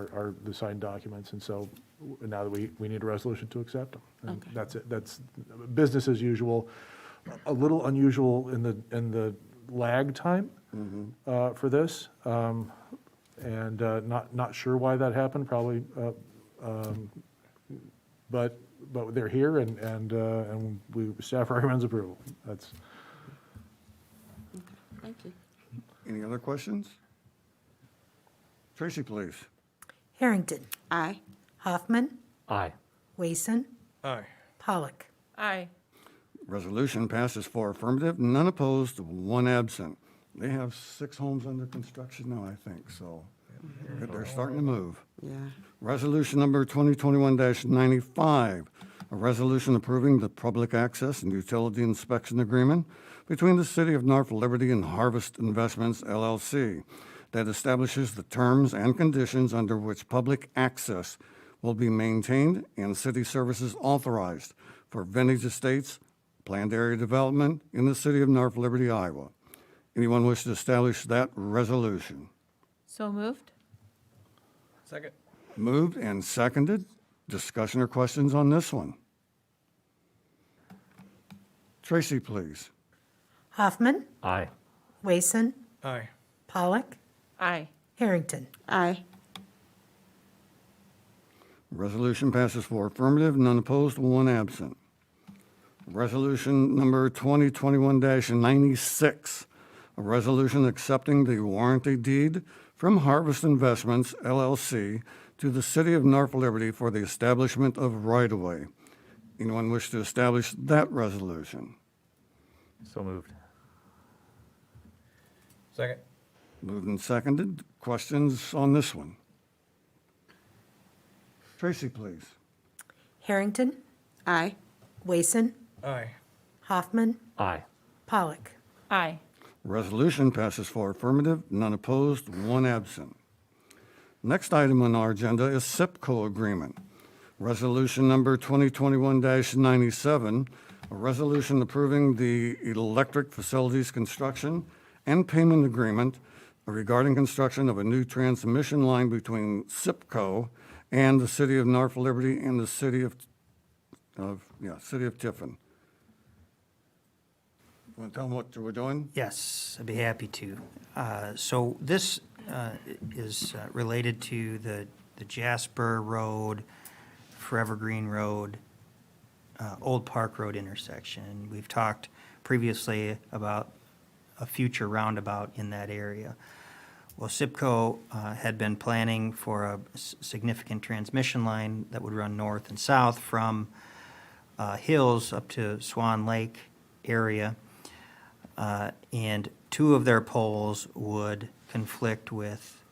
are- are the signed documents, and so w- now that we, we need a resolution to accept them. And Okay. That's it, that's business as usual. A little unusual in the, in the lag time uh, for this, um, and uh, not, not sure why that happened, probably, uh, um, but, but they're here, and, and, uh, and we, staff recommends approval. That's, Thank you. Any other questions? Tracy, please. Harrington. Aye. Hoffman. Aye. Wason. Aye. Pollock. Aye. Resolution passes four affirmative, none opposed, one absent. They have six homes under construction now, I think, so they're starting to move. Yeah. Resolution number 2021-95, a resolution approving the public access and utility inspection agreement between the City of North Liberty and Harvest Investments LLC that establishes the terms and conditions under which public access will be maintained and city services authorized for vintage estates, planned area development in the City of North Liberty, Iowa. Anyone wish to establish that resolution? So moved? Second. Moved and seconded. Discussion or questions on this one? Tracy, please. Hoffman. Aye. Wason. Aye. Pollock. Aye. Harrington. Aye. Resolution passes for affirmative, none opposed, one absent. Resolution number 2021-96, a resolution accepting the warranty deed from Harvest Investments LLC to the City of North Liberty for the establishment of right-of-way. Anyone wish to establish that resolution? So moved. Second. Moved and seconded. Questions on this one? Tracy, please. Harrington. Aye. Wason. Aye. Hoffman. Aye. Pollock. Aye. Resolution passes for affirmative, none opposed, one absent. Next item on our agenda is SIPCO agreement. Resolution number 2021-97, a resolution approving the electric facilities construction and payment agreement regarding construction of a new transmission line between SIPCO and the City of North Liberty and the City of, of, yeah, City of Tiffin. Want to tell them what we're doing? Yes, I'd be happy to. Uh, So this uh, is uh, related to the the Jasper Road, Forever Green Road, uh, Old Park Road intersection. We've talked previously about a future roundabout in that area. Well, SIPCO uh, had been planning for a s- significant transmission line that would run north and south from uh, Hills up to Swan Lake area uh, and two of their poles would conflict with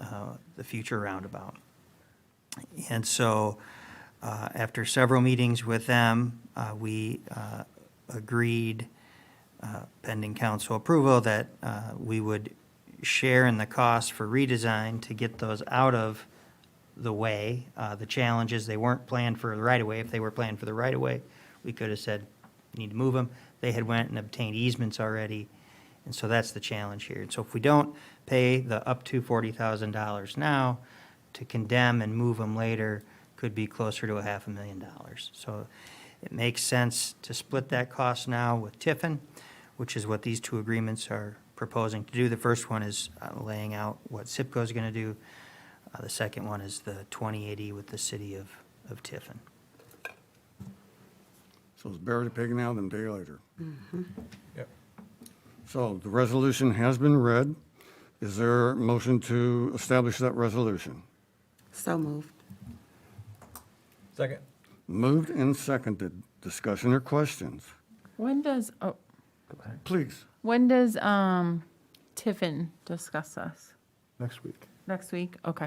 uh, the future roundabout. And so, uh, after several meetings with them, uh, we uh, agreed, uh, pending council approval, that uh, we would share in the cost for redesign to get those out of the way. Uh, The challenge is they weren't planned for the right-of-way. If they were planned for the right-of-way, we could have said, you need to move them. They had went and obtained easements already, and so that's the challenge here. And so if we don't pay the up to forty thousand dollars now, to condemn and move them later could be closer to a half a million dollars. So it makes sense to split that cost now with Tiffin, which is what these two agreements are proposing to do. The first one is uh, laying out what SIPCO is going to do. Uh, The second one is the 2080 with the city of, of Tiffin. So it's buried a pig now, then day later. Yep. So the resolution has been read. Is there a motion to establish that resolution? So moved. Second. Moved and seconded. Discussion or questions? When does, oh, Please. when does, um, Tiffin discuss us? next week. Next week? Okay.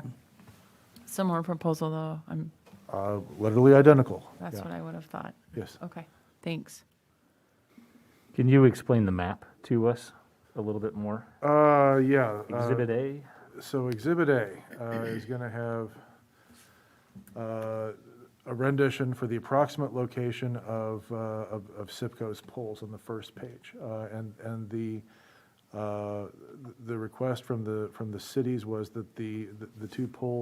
Similar proposal though, I'm, Uh, Literally identical. that's Yeah. what I would have thought. Yes. Okay, thanks. Can you explain the map to us a little bit more? Uh, yeah. uh, Exhibit A? So Exhibit A uh, is going to have uh, a rendition for the approximate location of, uh, of of SIPCO's poles on the first page. Uh, And, and the, uh, the request from the, from the cities was that the, the- the two poles